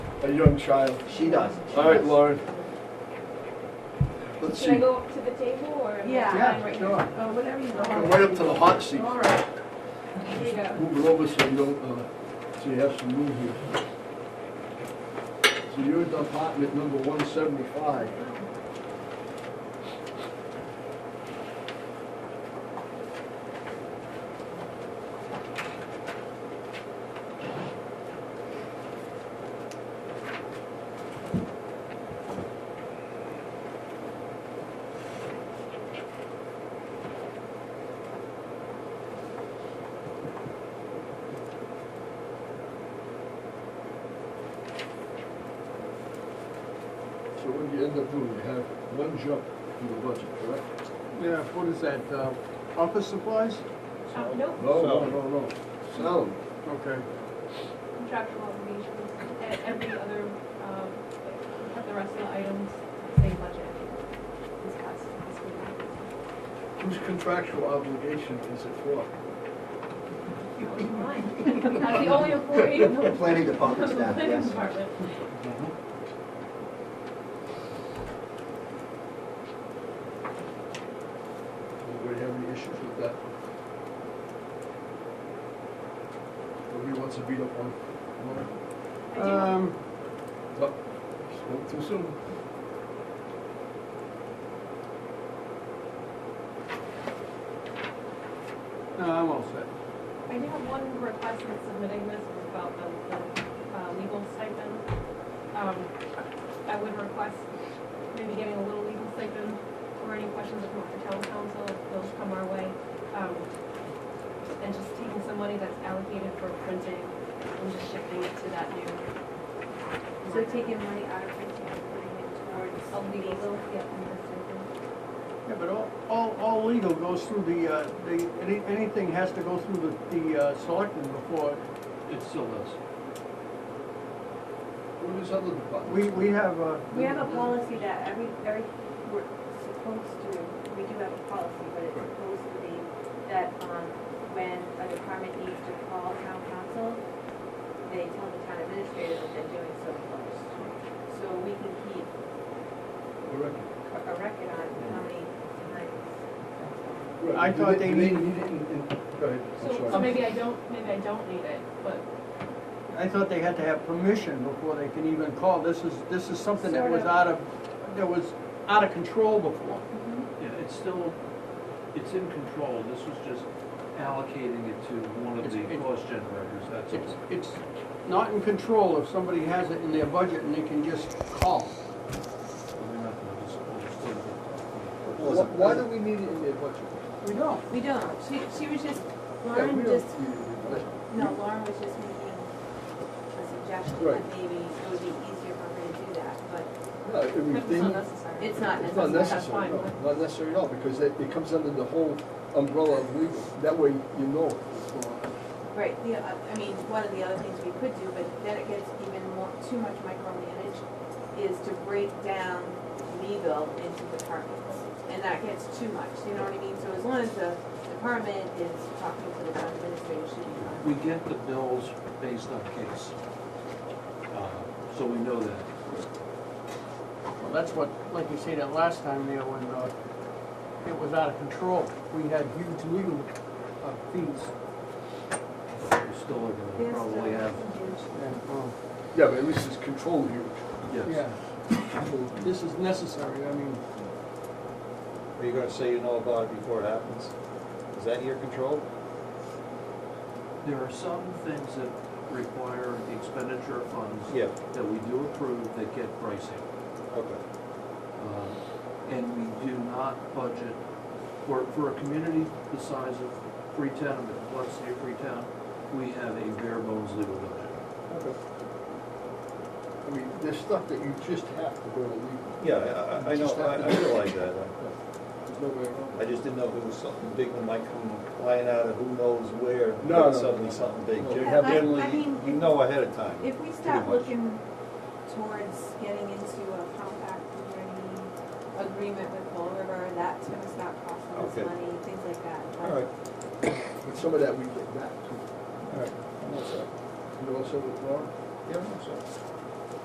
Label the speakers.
Speaker 1: a young child.
Speaker 2: She does. She
Speaker 1: All right,
Speaker 2: does.
Speaker 1: Lauren. Let's
Speaker 3: Should I
Speaker 1: see.
Speaker 3: go up to the table or?
Speaker 4: Yeah.
Speaker 1: Yeah, sure.
Speaker 4: Oh, whatever you
Speaker 1: Come
Speaker 4: want.
Speaker 1: right up to the hot seat.
Speaker 4: All right.
Speaker 3: Here you go.
Speaker 1: Move it over so you don't, uh, so you have some room here. So you're at apartment number one seventy-five. So what do you end up doing? You have one jump in the budget, correct?
Speaker 5: Yeah, what is that, uh, office supplies?
Speaker 3: Uh, Nope,
Speaker 1: No, no, no, no. Salary.
Speaker 5: Okay,
Speaker 3: contractual obligations, and every other, um, like, the rest of the items, same budget. Discussed this week.
Speaker 1: Whose contractual obligation is it for?
Speaker 3: Mine. I'm the only employee in the.
Speaker 2: Planning department staff,
Speaker 3: planning
Speaker 2: yes.
Speaker 3: department.
Speaker 1: Uh-huh. Anybody have any issues with that? Nobody wants to beat up on Lauren?
Speaker 3: I do-
Speaker 5: um,
Speaker 1: Well, spoke too soon.
Speaker 5: no, I'm all set.
Speaker 3: I do have one request in submitting this was about the, the uh, legal stipend. Um, I would request maybe getting a little legal stipend or any questions that come up for town council, if those come our way. Um, And just taking some money that's allocated for printing and just shifting it to that new.
Speaker 6: So taking money out of retail and putting it
Speaker 3: A
Speaker 6: towards
Speaker 3: legal,
Speaker 6: legal.
Speaker 3: yeah, legal stipend.
Speaker 5: Yeah, but all, all, all legal goes through the, uh, the, any- anything has to go through the, the, uh, selectmen before,
Speaker 7: It still does.
Speaker 1: What is other department?
Speaker 5: we, we have, uh,
Speaker 6: We have a policy that every, every, we're supposed to, we do have a policy, but it's supposed to be that, um, when a department needs to call town council, they tell the town administrator that they're doing so first. So we can keep
Speaker 1: Correct.
Speaker 6: a a record on how many times.
Speaker 1: Right,
Speaker 5: I
Speaker 1: do
Speaker 5: thought they
Speaker 1: do
Speaker 5: need-
Speaker 1: need it in, in, go ahead, I'm
Speaker 3: So,
Speaker 1: sorry.
Speaker 3: so maybe I don't, maybe I don't need it, but
Speaker 5: I thought they had to have permission before they can even call, this is, this is something that
Speaker 6: Sort
Speaker 5: was
Speaker 6: of.
Speaker 5: out of, that was out of control before.
Speaker 7: Yeah, it's still, it's in control, this was just allocating it to one of the
Speaker 5: It's- it-
Speaker 7: cost generators, that's
Speaker 5: It's,
Speaker 7: all.
Speaker 5: it's not in control if somebody has it in their budget and they can just call.
Speaker 7: We're not gonna just- we'll just still get that.
Speaker 1: Why, why do we need it in their budget?
Speaker 5: We don't.
Speaker 6: We don't, she, she was just,
Speaker 1: Yeah, we
Speaker 6: Lauren
Speaker 1: don't
Speaker 6: just
Speaker 1: need it in their budget.
Speaker 6: No, Lauren was just making a suggestion that
Speaker 1: Right.
Speaker 6: maybe it would be easier for her to do that, but
Speaker 1: No, I mean,
Speaker 3: it's
Speaker 1: they
Speaker 3: not
Speaker 1: need-
Speaker 3: necessary.
Speaker 6: it's not
Speaker 1: It's not
Speaker 6: necessary.
Speaker 1: necessary,
Speaker 3: fine.
Speaker 1: no, not necessary at all, because it, it comes under the whole umbrella of legal. That way you know what's going on.
Speaker 6: Right, the, uh, I mean, one of the other things we could do, but then it gets even more, too much micromanaged, is to break down legal into departments. And that gets too much, you know what I mean? So as long as the department is talking to the town administrator, she should be fine.
Speaker 7: We get the bills based on case, uh, so we know that.
Speaker 5: Well, that's what, like you said that last time there, when, uh, it was out of control, we had huge legal uh, fees.
Speaker 7: We still are gonna probably have,
Speaker 5: and, uh,
Speaker 1: Yeah, but at least it's controlled here.
Speaker 7: yes.
Speaker 5: Yeah, this is necessary, I mean,
Speaker 8: Are you gonna say you know about it before it happens? Is that your control?
Speaker 7: There are some things that require the expenditure of funds
Speaker 8: Yeah.
Speaker 7: that we do approve that get pricing.
Speaker 8: Okay.
Speaker 7: Um, And we do not budget, for, for a community the size of Freetown, and the complexity of Freetown, we have a bare bones legal budget.
Speaker 1: Okay. I mean, there's stuff that you just have to go to legal.
Speaker 8: Yeah, I- I, I know, I I realize that. I-
Speaker 1: There's no way around
Speaker 8: I just didn't know if it was something big that might come flying out of who knows where.
Speaker 1: No, no, no, no.
Speaker 8: Suddenly something big.
Speaker 1: No.
Speaker 8: You
Speaker 1: Yeah,
Speaker 6: I-
Speaker 8: generally-
Speaker 6: I mean-
Speaker 8: You know ahead of time.
Speaker 6: If we start
Speaker 8: much.
Speaker 6: looking towards getting into a compact learning agreement with Bull River, that's gonna start costing us
Speaker 8: Okay.
Speaker 6: money, things like that. but-
Speaker 8: All right,
Speaker 1: it. But some of that we get back too.
Speaker 8: all right. I'm all set.
Speaker 1: You know, so, Laura,
Speaker 8: Yeah, I'm all set.